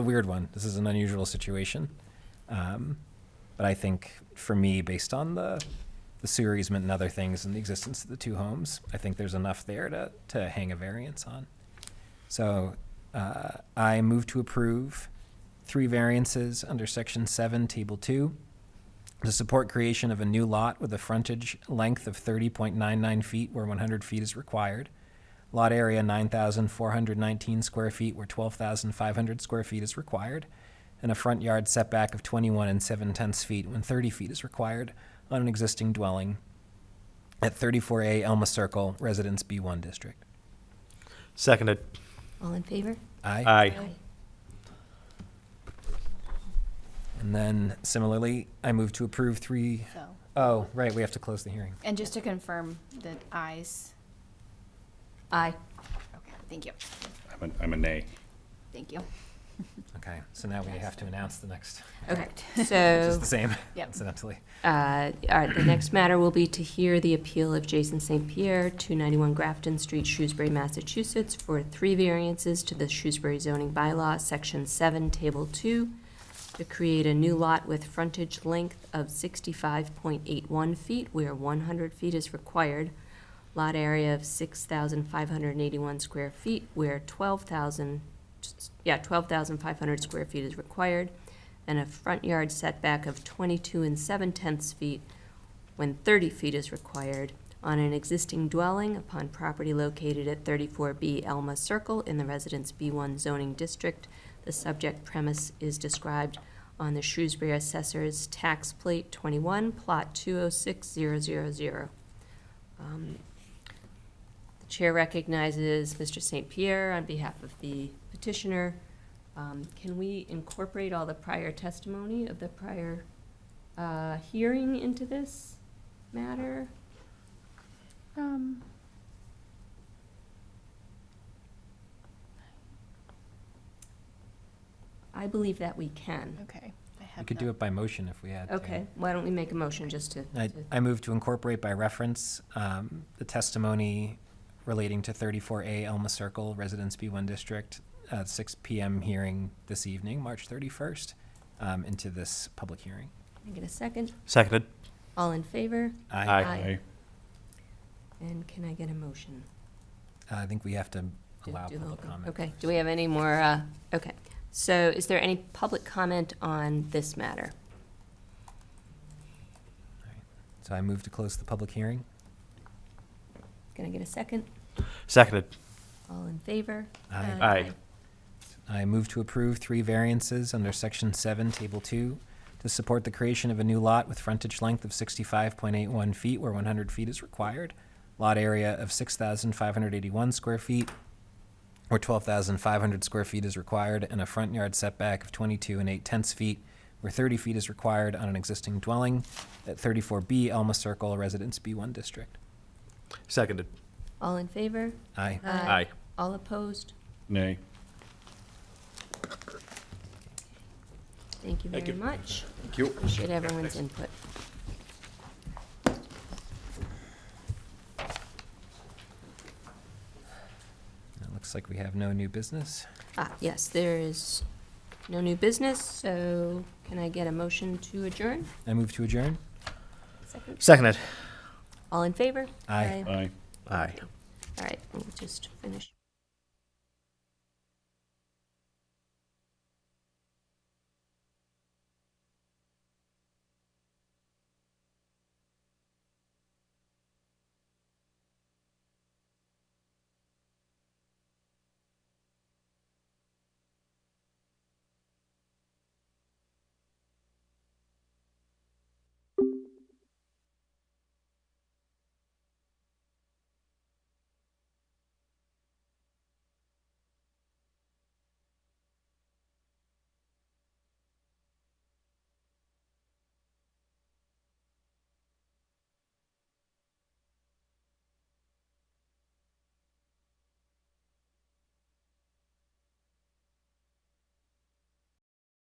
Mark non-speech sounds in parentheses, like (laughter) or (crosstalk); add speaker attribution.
Speaker 1: a weird one. This is an unusual situation. Um, but I think for me, based on the the sewer easement and other things and the existence of the two homes, I think there's enough there to, to hang a variance on. So uh, I move to approve three variances under section seven, table two, to support creation of a new lot with a frontage length of thirty point nine nine feet where one hundred feet is required. Lot area nine thousand four hundred nineteen square feet where twelve thousand five hundred square feet is required. And a front yard setback of twenty-one and seven tenths feet when thirty feet is required on an existing dwelling at thirty-four A Elma Circle, Residence B one District.
Speaker 2: Seconded.
Speaker 3: All in favor?
Speaker 1: Aye?
Speaker 2: Aye.
Speaker 1: And then similarly, I move to approve three,
Speaker 4: So,
Speaker 1: oh, right, we have to close the hearing.
Speaker 4: and just to confirm the ayes,
Speaker 3: Aye.
Speaker 4: okay, thank you,
Speaker 5: I'm a, I'm a nay.
Speaker 4: thank you.
Speaker 1: Okay, so now we have to announce the next,
Speaker 3: Okay,
Speaker 1: which is
Speaker 3: (laughs) so,
Speaker 1: the
Speaker 3: (laughs)
Speaker 1: same,
Speaker 4: Yep.
Speaker 1: incidentally.
Speaker 3: uh, all right, the next matter will be to hear the appeal of Jason St. Pierre, 291 Grafton Street, Shrewsbury, Massachusetts, for three variances to the Shrewsbury zoning bylaw, Section 7, Table 2, to create a new lot with frontage length of 65.81 feet where 100 feet is required, lot area of 6,581 square feet where 12,000, yeah, 12,500 square feet is required, and a front yard setback of 22 and 7 tenths feet when 30 feet is required on an existing dwelling upon property located at 34B Elma Circle in the Residence B1 zoning district. The subject premise is described on the Shrewsbury Assessor's Tax Plate 21, Plot 206000. Um, The chair recognizes Mr. St. Pierre on behalf of the petitioner. Um, Can we incorporate all the prior testimony of the prior uh, hearing into this matter?
Speaker 4: Um.
Speaker 3: I believe that we can.
Speaker 4: Okay. I
Speaker 1: We
Speaker 4: have
Speaker 1: could
Speaker 4: not-
Speaker 1: do it by motion if we had to.
Speaker 3: Okay, why don't we make a motion just to,
Speaker 1: I,
Speaker 3: to-
Speaker 1: I move to incorporate by reference um, the testimony relating to 34A Elma Circle, Residence B1 District, uh, 6 PM hearing this evening, March 31st, um, into this public hearing.
Speaker 3: Can I get a second?
Speaker 2: Seconded.
Speaker 3: All in favor?
Speaker 2: Aye.
Speaker 3: Aye. And can I get a motion?
Speaker 1: Uh, I think we have to
Speaker 3: Do-
Speaker 1: allow
Speaker 3: do the whole
Speaker 1: public
Speaker 3: thing.
Speaker 1: comment.
Speaker 3: Okay,
Speaker 1: first.
Speaker 3: do we have any more, uh, okay. So is there any public comment on this matter?
Speaker 1: So I move to close the public hearing.
Speaker 3: Can I get a second?
Speaker 2: Seconded.
Speaker 3: All in favor?
Speaker 1: Aye.
Speaker 2: Aye.
Speaker 1: I move to approve three variances under Section 7, Table 2, to support the creation of a new lot with frontage length of 65.81 feet where 100 feet is required, lot area of 6,581 square feet where 12,500 square feet is required, and a front yard setback of 22 and 8 tenths feet where 30 feet is required on an existing dwelling at 34B Elma Circle, Residence B1 District.
Speaker 2: Seconded.
Speaker 3: All in favor?
Speaker 1: Aye.
Speaker 3: Uh,
Speaker 2: Aye.
Speaker 3: All opposed?
Speaker 5: Nay.
Speaker 3: Thank you
Speaker 5: Thank
Speaker 3: very
Speaker 5: you.
Speaker 3: much.
Speaker 5: Thank you.
Speaker 3: Appreciate everyone's input.
Speaker 1: It looks like we have no new business.
Speaker 3: Ah, yes, there is no new business, so can I get a motion to adjourn?
Speaker 1: I move to adjourn.
Speaker 3: Second.
Speaker 2: Seconded.
Speaker 3: All in favor?
Speaker 1: Aye.
Speaker 5: Aye.
Speaker 2: Aye.
Speaker 3: All right, we'll just finish.